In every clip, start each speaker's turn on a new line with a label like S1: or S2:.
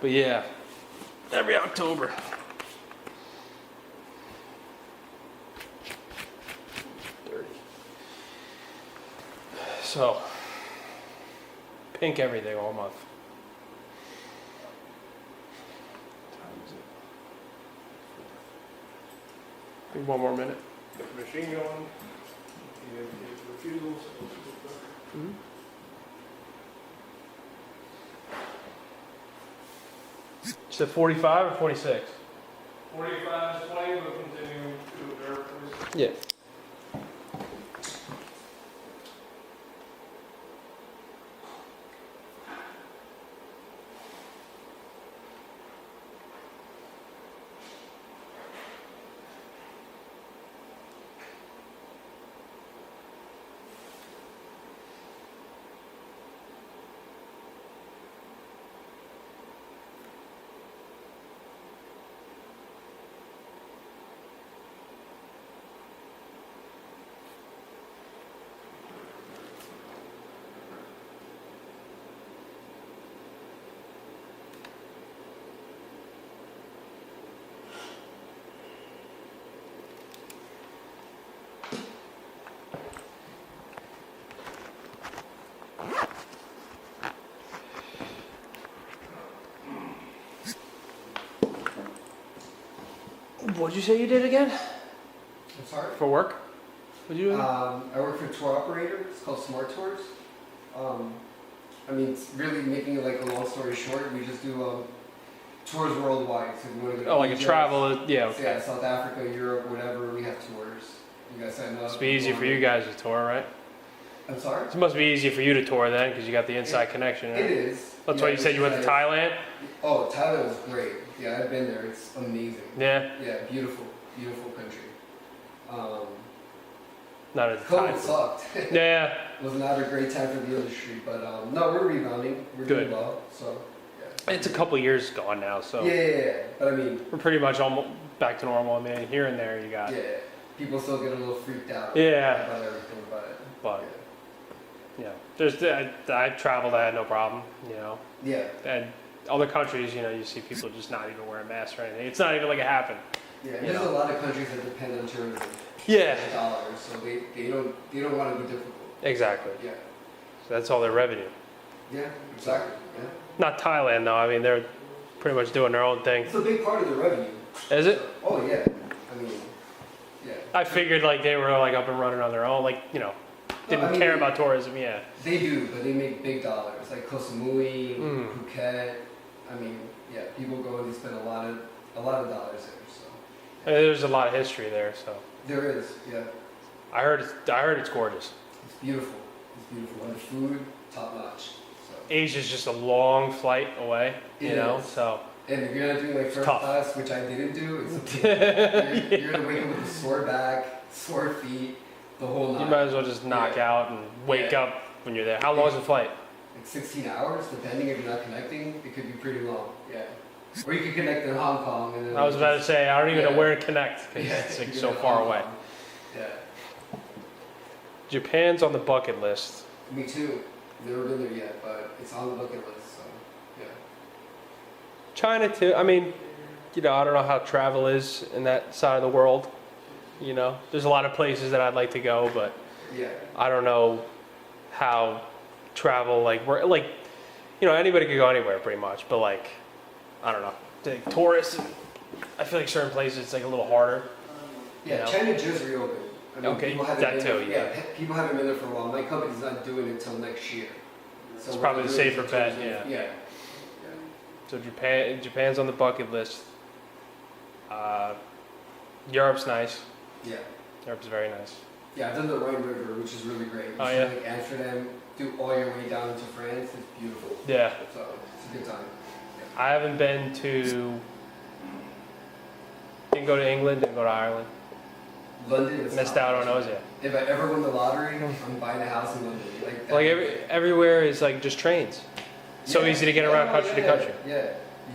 S1: But yeah, every October. Dirty. So, pink everything all month. Times it. Think one more minute.
S2: machine gun, and the refusals.
S1: Is it 45 or 46?
S2: Forty-five display will continue to observe this.
S1: Yeah. What'd you say you did again?
S3: I'm sorry.
S1: For work? What'd you do?
S3: Um, I work for a tour operator. It's called Smart Tours. Um, I mean, it's really making it like a long story short. We just do um, tours worldwide. So we go to the
S1: oh, like a
S3: Philippines,
S1: travel. Yeah, okay.
S3: Yeah, South Africa, Europe, whatever. We have tours. You guys sign up.
S1: It's be easy for you guys to tour, right?
S3: I'm sorry.
S1: It must be easy for you to tour then, because you got the inside connection.
S3: It
S1: Right?
S3: is.
S1: That's
S3: Yeah,
S1: why you said you went to
S3: I-
S1: Thailand.
S3: Oh, Thailand was great. Yeah, I've been there. It's amazing.
S1: Yeah,
S3: Yeah, beautiful, beautiful country. Um,
S1: not at the
S3: COVID
S1: time.
S3: sucked.
S1: Yeah,
S3: was not a great time for the industry, but um, no, we're rebounding. We're
S1: Good.
S3: doing well. So yeah.
S1: it's a couple years gone now, so
S3: yeah, yeah, yeah. But I mean,
S1: we're pretty much almost back to normal. I mean, here and there you got.
S3: yeah, people still get a little freaked out
S1: Yeah,
S3: about everything, but
S1: but yeah, there's I, I traveled, I had no problem. You know,
S3: yeah, yeah,
S1: and other countries, you know, you see people just not even wearing masks or anything. It's not even like it happened.
S3: yeah.
S1: You
S3: There's
S1: know.
S3: a lot of countries that depend on tourism,
S1: Yeah,
S3: and dollars, so they, they don't they don't want to be difficult.
S1: exactly.
S3: Yeah,
S1: So that's all their revenue.
S3: yeah, exactly. Yeah,
S1: Not Thailand though. I mean, they're pretty much doing their own thing.
S3: it's a big part of the revenue.
S1: Is it?
S3: Oh yeah, I mean, yeah.
S1: I figured like they were like up and running on their own, like you know, didn't
S3: No, I mean,
S1: care
S3: they-
S1: about tourism. Yeah,
S3: They do, but they make big dollars, like Koh Samui,
S1: Mm.
S3: Phuket. I mean, yeah, people go and they spend a lot of a lot of dollars there. So
S1: I mean, Uh, there's a lot of history there. So
S3: there is, yeah,
S1: I heard, it's, I heard it's gorgeous.
S3: it's beautiful. It's beautiful, and the food top notch. So
S1: Asia's just a long flight away, you
S3: It
S1: know.
S3: is.
S1: So
S3: and if you're not doing like first
S1: tough.
S3: class, which I didn't do, it's okay. you're, you're gonna wake up with a sore back, sore feet, the whole
S1: you
S3: night.
S1: might as well just knock out and wake
S3: Yeah.
S1: up when you're there. How long is the flight?
S3: like 16 hours, depending if you're not connecting, it could be pretty long. Yeah, or you could connect in Hong Kong and then
S1: I was about to say I don't even know
S3: Yeah.
S1: where to connect because it's like so far away.
S3: Yeah.
S1: Japan's on the bucket list.
S3: Me too. Never been there yet, but it's on the bucket list. So, yeah.
S1: China too. I mean, you know, I don't know how travel is in that side of the world. You know, there's a lot of places that I'd like to go, but
S3: Yeah.
S1: I don't know how travel like we're like you know anybody could go anywhere pretty much, but like I don't know like tourists. I feel like certain places it's like a little harder.
S3: Yeah.
S1: You know?
S3: China just reopened. I mean,
S1: Okay,
S3: people haven't
S1: that
S3: been-
S1: too, yeah.
S3: pe- People haven't been there for a while. My company's not doing it until next year. So
S1: It's
S3: we're
S1: probably
S3: not
S1: the
S3: doing it
S1: safer
S3: until
S1: bet,
S3: June.
S1: yeah.
S3: Yeah.
S1: So Japan Japan's on the bucket list. Uh, Europe's nice.
S3: Yeah.
S1: Europe's very nice.
S3: Yeah. I've done the Rhine River, which is really great. You
S1: Oh,
S3: see,
S1: yeah?
S3: Like Amsterdam, do all your way down to France. It's beautiful.
S1: Yeah,
S3: So it's a good time.
S1: I haven't been to. Didn't go to England. Didn't go to Ireland.
S3: London is
S1: Missed
S3: top
S1: out on
S3: notch.
S1: those. Yeah.
S3: If I ever win the lottery, I'm buying a house in London. Like, that.
S1: Like every, everywhere is like just trains. So
S3: Yeah.
S1: easy to get around
S3: Yeah,
S1: country to
S3: yeah,
S1: country.
S3: Yeah,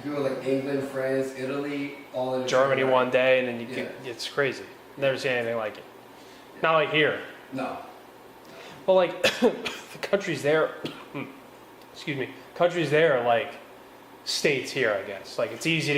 S3: you go like England, France, Italy, all in a
S1: Germany
S3: train ride.
S1: one day, and then you
S3: Yeah.
S1: get, it's crazy. Never seen anything like it. Not like here.
S3: No.
S1: Well, like the countries there, excuse me, countries there are like states here, I guess. Like it's easy to